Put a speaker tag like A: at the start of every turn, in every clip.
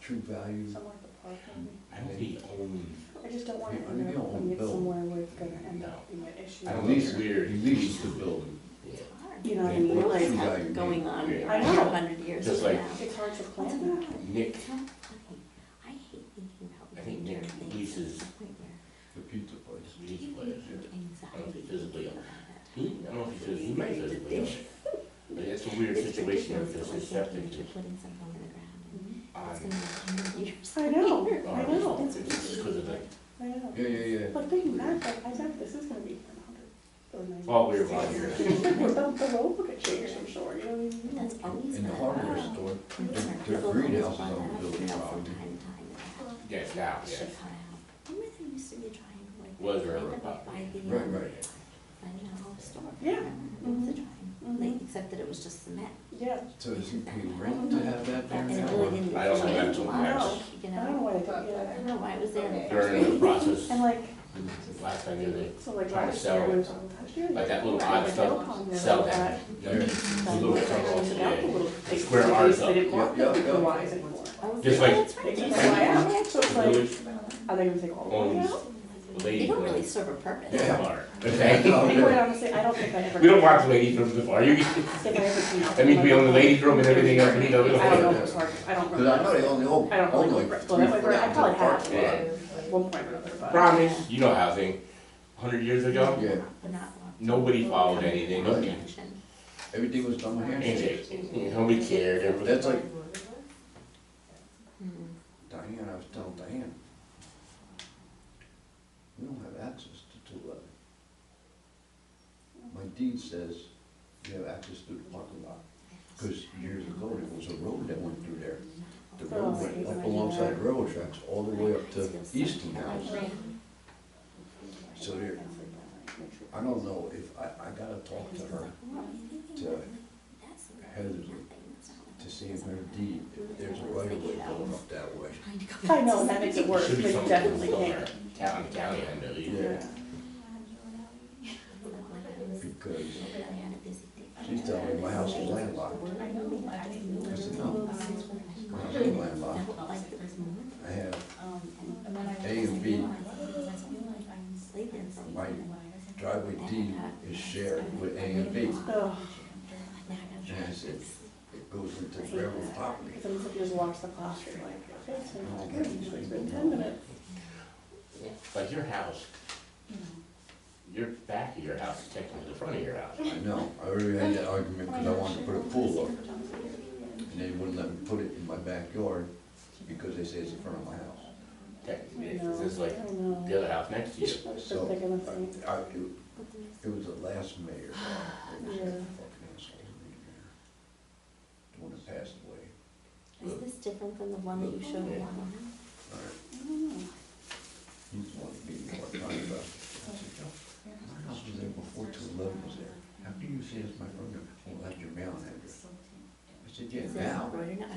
A: true value.
B: somewhere at the park, maybe.
C: I don't think he owned,
B: I just don't want it
A: Yeah,
B: in
A: maybe
B: there,
A: I'll
B: putting it
A: build.
B: somewhere where it's gonna end
C: No.
B: up being an issue.
C: I
A: At
C: don't know, it's
A: least-
C: weird.
A: He leases the building.
C: Yeah.
B: You know what I
A: Yeah.
B: mean?
D: Realize
B: Like,
D: how
A: Yeah.
D: going on in
B: I know.
D: a hundred years
C: Just
D: from
C: like-
D: now.
B: It's hard to plan
D: What's
B: that.
D: going on?
C: Nick,
D: It's not funny. I hate thinking
C: I
D: about
C: think
D: major
C: Nick
D: things to
C: leases-
D: the point where
A: The pizza place.
C: he
D: you
C: plays,
D: get
C: yeah. I don't
D: anxiety
C: think physically.
D: about
C: He, I don't know if he physically plays
D: Ready to
C: it, but yeah.
D: dish.
C: But it's a weird
D: it. It's
C: situation if
D: ridiculous
C: it's a
D: that we're
C: septic
D: thinking
C: just
D: of Putting something on the ground.
B: Mhm.
C: on.
D: It's gonna be a hundred years.
B: I know,
D: later.
B: I know.
C: It's just because of the,
B: I know.
A: Yeah, yeah, yeah.
B: But thinking back, like, I bet this is gonna be for a hundred or ninety.
C: oh, we're right here.
B: The, the road would have changed, I'm sure, you know what I mean?
D: That's always.
A: In the
D: been a
A: hardware
D: problem.
A: store,
D: Concern.
A: their- their
D: People
A: greenhouse is on
D: always bother
A: the building
D: us about
A: property.
D: From time to time that happens.
C: Yes, now, yes.
D: Should cut out. Remember there used to be a triangle like.
C: Was there
D: right
C: ever a
D: up
C: property?
D: By the.
A: Right,
D: um,
A: right.
D: By the general store.
B: Yeah.
D: Remember? It was a triangle,
B: Mhm.
D: like, except that it was just cement.
B: Yeah,
A: So is it paying rent to have that there
D: And it
A: now?
D: really didn't.
C: I don't know
D: change
C: that till
D: a lot,
C: now.
D: You
B: I
D: know,
B: don't know why they did
D: I
B: that.
D: don't know why it was there. in the first
C: During the
D: place.
C: process,
B: And like,
C: last time you did,
B: so like
C: Trying to
B: last
C: sell
B: year,
C: it.
B: it was on last year.
C: like that little
B: like,
C: odd
B: the
C: stuff,
B: hill pond there,
C: sell
B: like
C: that.
A: Yeah, it's a little
C: Little
B: Like,
C: tunnel,
B: rented out the
C: yeah.
B: little
C: The
B: thing,
C: square
B: they
C: arms
B: just- They
C: up.
B: didn't want
A: Yeah,
B: them to
A: yeah,
B: be
A: yeah.
B: wise anymore.
D: I was
C: Just
D: like,
C: like-
D: oh, that's
B: They took
D: right. that's
B: the way
D: right.
B: out, so it's like,
C: Village
B: are they gonna take all the way
C: owns
B: out?
C: the
D: They
C: lady
D: don't
C: from
D: really
C: the
D: serve a purpose.
A: Yeah.
C: bar.
A: Yeah.
C: Okay?
B: And quite honestly, I don't think I ever.
C: We don't want the lady from the bar, you,
B: If I ever came out.
C: that means we own the ladies' room and everything else, we don't.
B: I don't know if it's hard, I don't
A: Cause I know
B: remember.
A: they only own,
B: I don't
A: own
B: really
A: like
B: remember. Well,
A: three
B: I
A: foot out to the
B: probably have.
A: parking lot.
B: At one point or another, but.
C: Promise, you know housing, hundred years ago,
A: Yeah,
D: But not long.
C: nobody followed anything,
A: Right.
C: nobody,
D: Attention.
A: everything was done by handshake.
C: handshake, nobody cared, everybody.
A: That's like
D: Hmm.
A: Diane, I was telling Diane. We don't have access to two eleven. My deed says you have access to the parking lot, cause years ago, there was a road that went through there. The
D: Oh,
A: road went up alongside the railroad tracks, all the way up to Easton House. So there, I don't know if, I, I gotta talk to her to- Heather's to see if her deed, if there's a right of way going up that way.
B: I know, that makes it worse,
C: Should be
B: they
C: something
B: definitely
C: somewhere,
B: can't.
C: town, county, I know, you-
A: Yeah, because she's telling me my house is landlocked. I said, no, my house ain't landlocked. I have A and B. My driveway deed is shared with A and B.
B: Ugh,
A: And I said, it goes into railroad property.
B: because then if you just watch the clock, you're like, okay, it's been five minutes, it's been ten minutes.
C: like your house, your back of your house is technically the front of your house.
A: I know, I already had that argument because I wanted to put a pool up. And they wouldn't let me put it in my backyard because they say it's in front of my house.
C: Technically,
B: I
C: it's
B: know,
C: just like
B: I know.
C: the other house next to you.
B: I was
A: So-
B: just thinking the same.
A: I, it, it was the last mayor. It was a
B: Yeah.
A: fucking asshole, the mayor. The one that passed away.
D: Is this different than the one that you showed me online?
A: All right,
B: I don't know.
A: He just wanted to be more time about it. I said, "Yo, my house was there before two eleven was there. How can you say it's my front yard? Well, that's your mailing address. I said, yeah,
D: Is it
A: now.
D: right or not?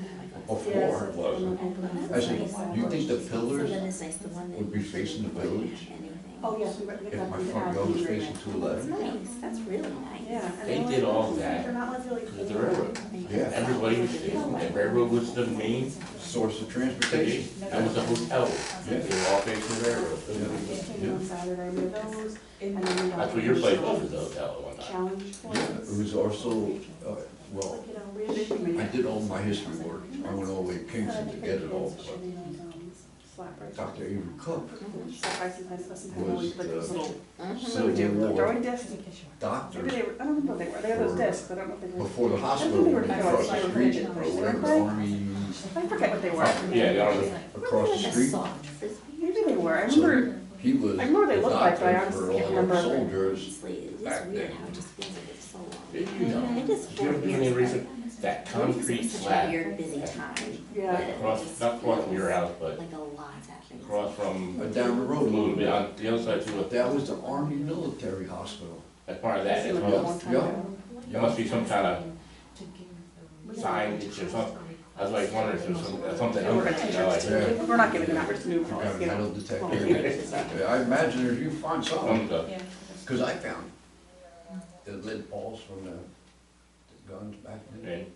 D: Oh,
A: Before
D: my God.
A: it wasn't. I said, you think the
D: So
A: pillars
D: then it's nice, the one that.
A: would be facing the village?
D: Anything.
B: Oh, yes, we recommend
A: If
B: that.
A: my front yard was facing two
D: That's
A: eleven,
D: nice, that's really nice.
B: Yeah. and
C: They
B: they're
C: did
B: like,
C: all
B: "Oh,
C: that
B: They're not like really.
C: Because the railroad,
A: Yeah.
C: everybody was, the railroad was the main
A: source of
C: station,
A: transportation.
C: that was the hotel. They were all facing the railroad.
A: Yeah.
B: Came on Saturday, we had those, and then we got.
C: That's what your place was, was the hotel at one time.
B: Challenge for
A: Yeah, it was also, uh, well, I did all my history work. I went all the way to Kingston to get it all, but
B: um,
A: Dr. Avery Cook, Was,
B: Was
A: uh,
B: little
A: Civil War
B: Throwing discs.
A: doctor
B: Maybe they were, I don't know what they were, they were those discs, but I don't know if they were.
A: before the hospital went across the street or whatever, army,
B: I forget what they were.
C: Yeah, that was,
A: across the street.
D: Soft frisbee.
B: Maybe they were, I
A: So
B: remember,
A: he was
B: I remember they
A: the
B: looked like, but I
A: doctor for
B: honestly can't
A: all our
B: remember.
A: soldiers.
D: Honestly, it is
A: back
D: weird
A: then.
D: how it just feels like it's so long.
C: you know,
D: It is
C: if you
D: four
C: ever do any
D: years.
C: reason, that
D: It's just
C: concrete
D: such a
C: slab,
D: Weird, busy time.
B: yeah,
C: across, not across from your house, but
D: Like a lot's happening.
C: across from,
A: But uh, down the
C: a
A: road a
C: little bit,
A: little
C: on the other side
A: bit,
C: too,
A: that was the army military hospital.
C: as part of that,
B: This
C: as
B: is like a
C: well.
B: long time
A: Yeah.
B: ago.
C: There must be some kind of signage or something. I was like wondering if there's some, something.
B: And we're gonna take our
C: else, you know, like,
B: pictures. We're not giving them out, we're just new
A: I got
B: calls,
A: a
B: you know.
A: metal detector. Yeah, I imagine if you find something,
C: some stuff.
A: cause I found the lead balls from the the guns back then.
C: And